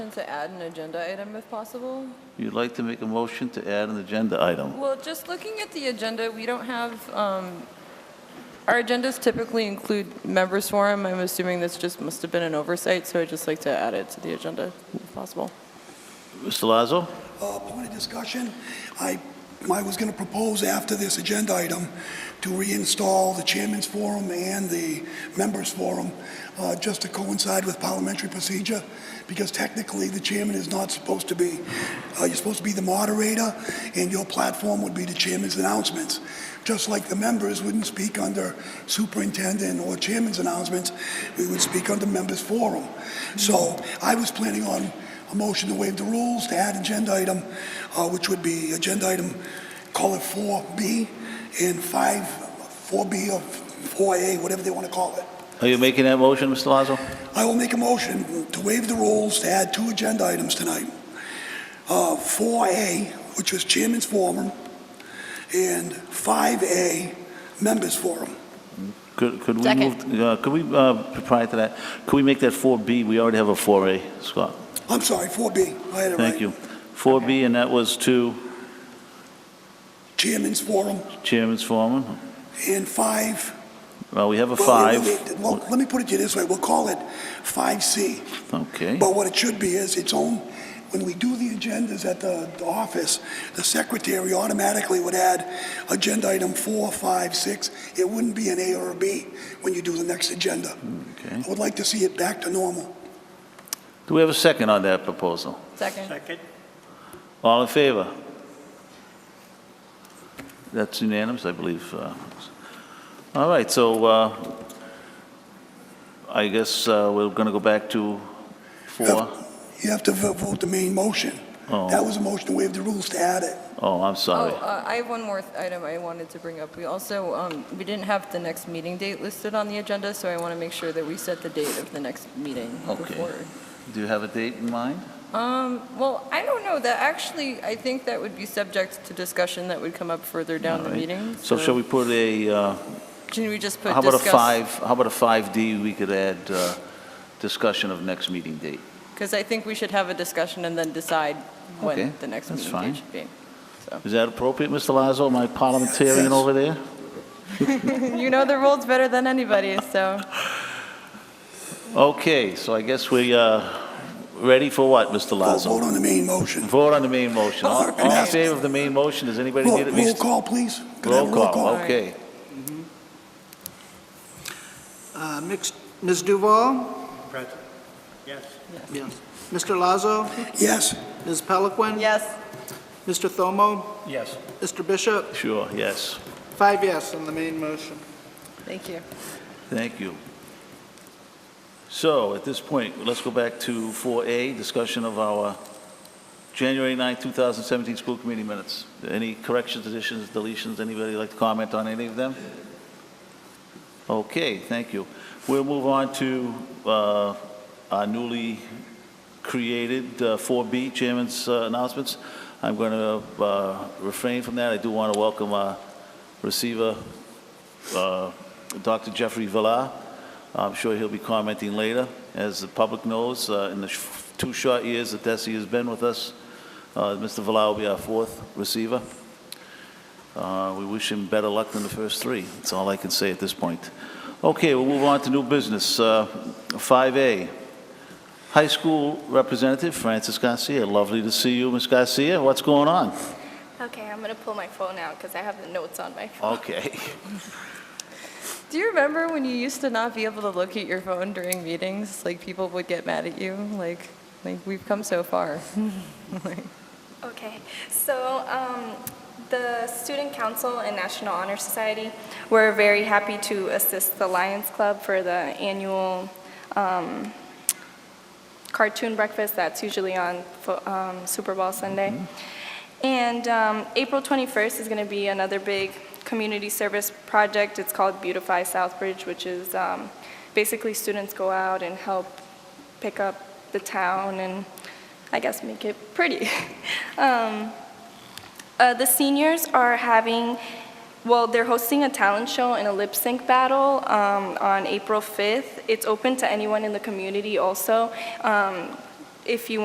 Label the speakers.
Speaker 1: to add an agenda item if possible?
Speaker 2: You'd like to make a motion to add an agenda item.
Speaker 1: Well, just looking at the agenda, we don't have, um, our agendas typically include members forum. I'm assuming this just must have been an oversight, so I'd just like to add it to the agenda if possible.
Speaker 2: Mr. Lazo?
Speaker 3: Uh, Point of discussion, I, I was going to propose after this agenda item to reinstall the Chairman's Forum and the Members Forum, uh, just to coincide with parliamentary procedure, because technically, the Chairman is not supposed to be, uh, you're supposed to be the moderator, and your platform would be the Chairman's announcements. Just like the members wouldn't speak under Superintendent or Chairman's announcements, we would speak under Members Forum. So I was planning on a motion to waive the rules to add agenda item, uh, which would be agenda item, call it 4B and 5, 4B or 4A, whatever they want to call it.
Speaker 2: Are you making that motion, Mr. Lazo?
Speaker 3: I will make a motion to waive the rules to add two agenda items tonight. Uh, 4A, which was Chairman's Forum, and 5A, Members Forum.
Speaker 2: Could could we
Speaker 4: Second.
Speaker 2: move, uh, could we, uh, prior to that, could we make that 4B? We already have a 4A, Scott.
Speaker 3: I'm sorry, 4B, I had it right.
Speaker 2: Thank you. 4B, and that was to
Speaker 3: Chairman's Forum
Speaker 2: Chairman's Foreman.
Speaker 3: and 5
Speaker 2: Well, we have a
Speaker 3: Well,
Speaker 2: 5.
Speaker 3: let me- well, Let me put it to you this way, we'll call it 5C,
Speaker 2: Okay.
Speaker 3: but what it should be is its own, when we do the agendas at the the office, the secretary automatically would add agenda item four, five, six. it wouldn't be an A or a B when you do the next agenda.
Speaker 2: Okay.
Speaker 3: I would like to see it back to normal.
Speaker 2: Do we have a second on that proposal?
Speaker 1: Second.
Speaker 5: Second.
Speaker 2: All in favor? That's unanimous, I believe. uh, All right, so uh, I guess uh, we're going to go back to four.
Speaker 3: You have to vo- vote the main motion.
Speaker 2: Oh.
Speaker 3: That was a motion to waive the rules to add it.
Speaker 2: Oh, I'm
Speaker 1: Oh,
Speaker 2: sorry.
Speaker 1: uh, I have one more th- item I wanted to bring up. We also, um, we didn't have the next meeting date listed on the agenda, so I want to make sure that we set the date of the next meeting
Speaker 2: Okay.
Speaker 1: before.
Speaker 2: Do you have a date in mind?
Speaker 1: Um, well, I don't know, that actually, I think that would be subject to discussion that would come up further down the
Speaker 2: All right.
Speaker 1: meeting.
Speaker 2: So shall we put a, uh,
Speaker 1: Can we just put
Speaker 2: how about a
Speaker 1: discuss-
Speaker 2: 5, how about a 5D, we could add uh, discussion of next meeting date?
Speaker 1: Because I think we should have a discussion and then decide
Speaker 2: Okay,
Speaker 1: when the next
Speaker 2: that's
Speaker 1: meeting
Speaker 2: fine.
Speaker 1: date should be.
Speaker 2: Is that appropriate, Mr. Lazo, my parliamentarian
Speaker 3: Yes.
Speaker 2: over there?
Speaker 1: You know the rules better than anybody, so.
Speaker 2: Okay, so I guess we uh ready for what, Mr.
Speaker 3: Vote-
Speaker 2: Lazo?
Speaker 3: Vote on the main motion.
Speaker 2: Vote on the main motion. All all in
Speaker 3: Okay.
Speaker 2: favor of the main motion, does anybody
Speaker 3: Roll
Speaker 2: need at
Speaker 3: roll
Speaker 2: least?
Speaker 3: call, please. Could I have
Speaker 2: Roll
Speaker 3: a
Speaker 2: call, okay.
Speaker 6: Uh, mixed- Ms. Duval?
Speaker 5: Present. Yes.
Speaker 6: Yes. Mr. Lazo?
Speaker 3: Yes,
Speaker 6: Ms. Peliquin?
Speaker 1: Yes.
Speaker 6: Mr. Thomo?
Speaker 5: Yes.
Speaker 6: Mr. Bishop?
Speaker 2: Sure, yes.
Speaker 6: Five yes on the main motion.
Speaker 1: Thank you.
Speaker 2: Thank you. So at this point, let's go back to 4A, discussion of our January 9, 2017 school committee minutes. Any corrections, additions, deletions? Anybody like to comment on any of them? Okay, thank you. We'll move on to uh, our newly created uh, 4B, Chairman's uh, announcements. I'm going to refrain from that. I do want to welcome our receiver, uh, Dr. Jeffrey Villar. I'm sure he'll be commenting later. As the public knows, uh, in the sh- two short years that Desi has been with us, uh, Mr. Villar will be our fourth receiver. Uh, We wish him better luck than the first three. That's all I can say at this point. Okay, we'll move on to new business. Uh, 5A, High School Representative Francis Garcia. Lovely to see you, Ms. Garcia. What's going on?
Speaker 4: Okay, I'm gonna pull my phone out because I have the notes on my phone.
Speaker 2: Okay.
Speaker 1: Do you remember when you used to not be able to look at your phone during meetings? Like, people would get mad at you, like, like, we've come so far.
Speaker 4: Okay, so um, the Student Council and National Honor Society were very happy to assist the Lions Club for the annual um, cartoon breakfast that's usually on fo- um, Super Bowl Sunday. And um, April 21st is going to be another big community service project. It's called Beautify Southbridge, which is um, basically students go out and help pick up the town and I guess make it pretty. um, uh, the seniors are having, well, they're hosting a talent show and a lip sync battle um, on April 5th. It's open to anyone in the community also. Um, if you